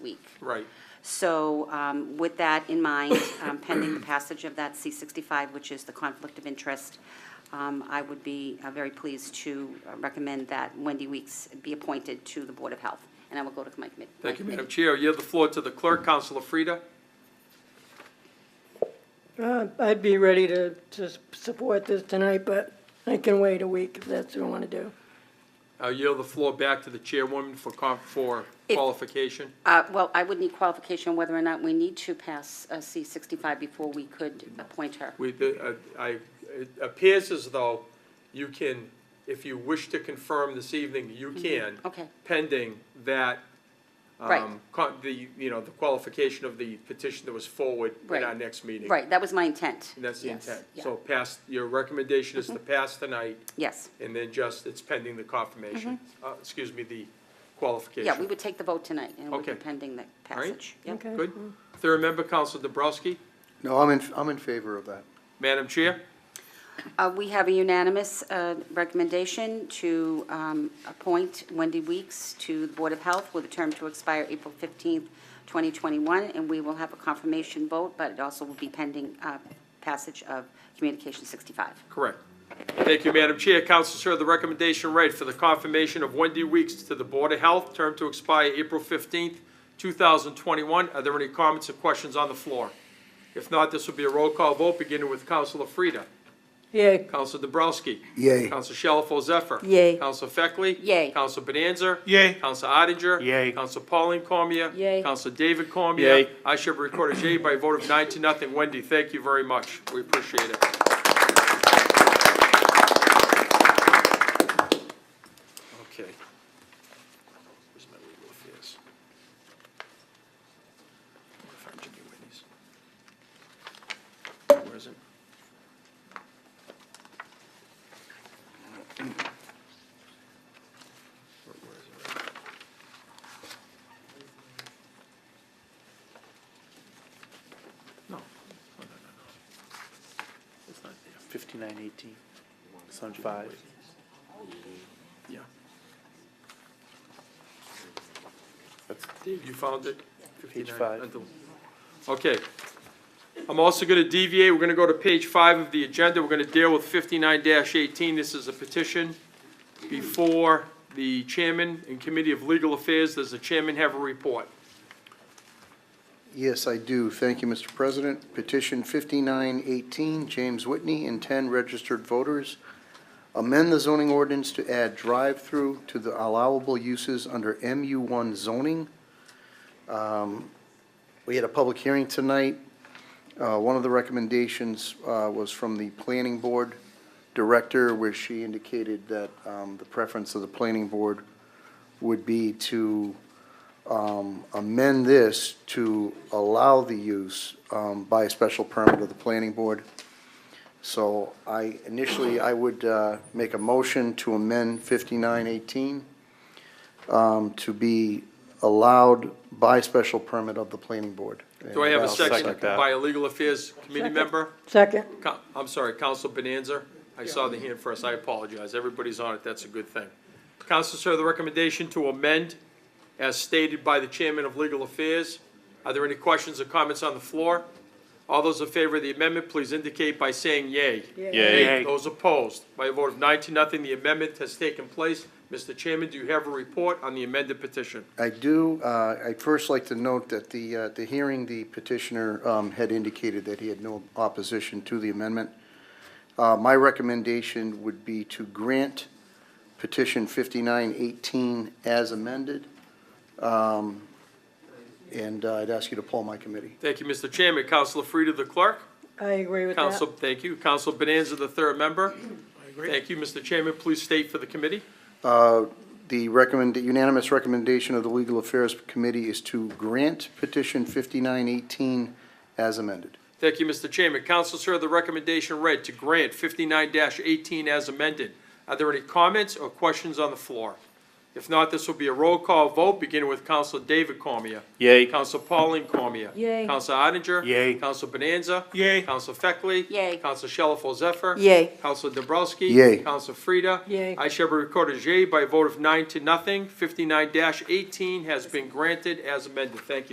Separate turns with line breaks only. week.
Right.
So um, with that in mind, um, pending the passage of that C-65, which is the conflict of interest, um, I would be uh, very pleased to uh, recommend that Wendy Weeks be appointed to the Board of Health, and I will go to my committee.
Thank you, Madam Chair. Yield the floor to the clerk, Councilor Frida.
Uh, I'd be ready to, to s- support this tonight, but I can wait a week if that's what I want to do.
I'll yield the floor back to the chairwoman for com- for
If-
qualification.
Uh, Well, I would need qualification whether or not we need to pass uh, C-65 before we could appoint her.
We, the, uh, I, it appears as though you can, if you wish to confirm this evening, you can.
Mm-hmm. Okay.
Pending that,
Right.
um, con- the, you know, the qualification of the petition that was forward in our
Right.
next meeting.
Right, that was my intent.
And that's the
Yes,
intent.
yeah. Mm-hmm.
So pass, your recommendation is to pass tonight,
Yes.
and then just, it's pending the confirmation, uh, excuse me, the qualification.
Mm-hmm. Yeah, we would take the vote tonight, and it would be
Okay.
pending the
right.
passage. Yep.
Okay.
Good. Third member, Counsel Dobrowski.
No, I'm in, I'm in favor of that.
Madam Chair,
Uh, We have a unanimous uh, recommendation to um, appoint Wendy Weeks to the Board of Health with a term to expire April 15th, 2021, and we will have a confirmation vote, but it also will be pending uh, passage of Communication 65.
correct. Thank you, Madam Chair. Counsel, sir, the recommendation read for the confirmation of Wendy Weeks to the Board of Health, term to expire April 15th, 2021. Are there any comments or questions on the floor? If not, this will be a roll call vote, beginning with Counsel Frida.
Yay,
Counsel Dobrowski.
Yay.
Counsel Shalfo Zephyr.
Yay.
Counsel Feckley.
Yay.
Counsel Bonanza.
Yay.
Counsel Odenger.
Yay.
Counsel Pauline Cormier.
Yay.
Counsel David Cormier.
Yay.
I should record a yay by a vote of nine to nothing. Wendy, thank you very much. We appreciate it. Okay. Where's my legal affairs? I wonder if I can get Wendy's. Where is it? Where- where is it? No, no, no, no, no. It's not there.
5918, it's on five.
Yeah. Dave, you found it?
Page
59.
five.
Until- Okay. I'm also going to deviate, we're going to go to page five of the agenda, we're going to deal with fifty-nine eighteen. This is a petition before the chairman and committee of legal affairs. Does the chairman have a report?
Yes, I do. Thank you, Mr. President. Petition 5918, James Whitney and 10 registered voters. Amend the zoning ordinance to add drive-through to the allowable uses under MU1 zoning. Um, We had a public hearing tonight. Uh, One of the recommendations uh, was from the Planning Board Director, where she indicated that um, the preference of the Planning Board would be to um, amend this to allow the use um, by a special permit of the planning board. So I, initially, I would uh, make a motion to amend 5918 um, to be allowed by special permit of the planning board.
Do I have a
And I'll
second
second that.
by a legal affairs committee member?
second.
Co- I'm sorry, Counsel Bonanza? I saw the hand first, I apologize. Everybody's on it, that's a good thing. Counsel, sir, the recommendation to amend as stated by the Chairman of Legal Affairs. Are there any questions or comments on the floor? All those in favor of the amendment, please indicate by saying yea.
Yay.
Those opposed, by a vote of nine to nothing, the amendment has taken place. Mr. Chairman, do you have a report on the amended petition?
I do, uh, I'd first like to note that the, uh, the hearing, the petitioner um, had indicated that he had no opposition to the amendment. Uh, My recommendation would be to grant petition 5918 as amended, Um, and uh, I'd ask you to poll my committee.
Thank you, Mr. Chairman. Counsel Frida, the clerk?
I agree with
Counsel,
that.
thank you. Counsel Bonanza, the third member. Thank you, Mr. Chairman. Please state for the committee.
Uh, The recommend, the unanimous recommendation of the Legal Affairs Committee is to grant petition 5918 as amended.
Thank you, Mr. Chairman. Counsel, sir, the recommendation read to grant fifty-nine eighteen as amended. Are there any comments or questions on the floor? If not, this will be a roll call vote, beginning with Counselor David Cormier.
Yay.
Counselor Pauline Cormier.
Yay.
Counselor Odenger.
Yay.
Counselor Bonanza. Yay. Counselor Feckley.
Yay.
Counselor Shalfo Zephyr.
Yay.
Counselor Dobrowski.
Yay.
Counselor Frida.
Yay.
I shall be recorded yay by a vote of nine to nothing. Fifty-nine eighteen has been granted as amended. Thank you.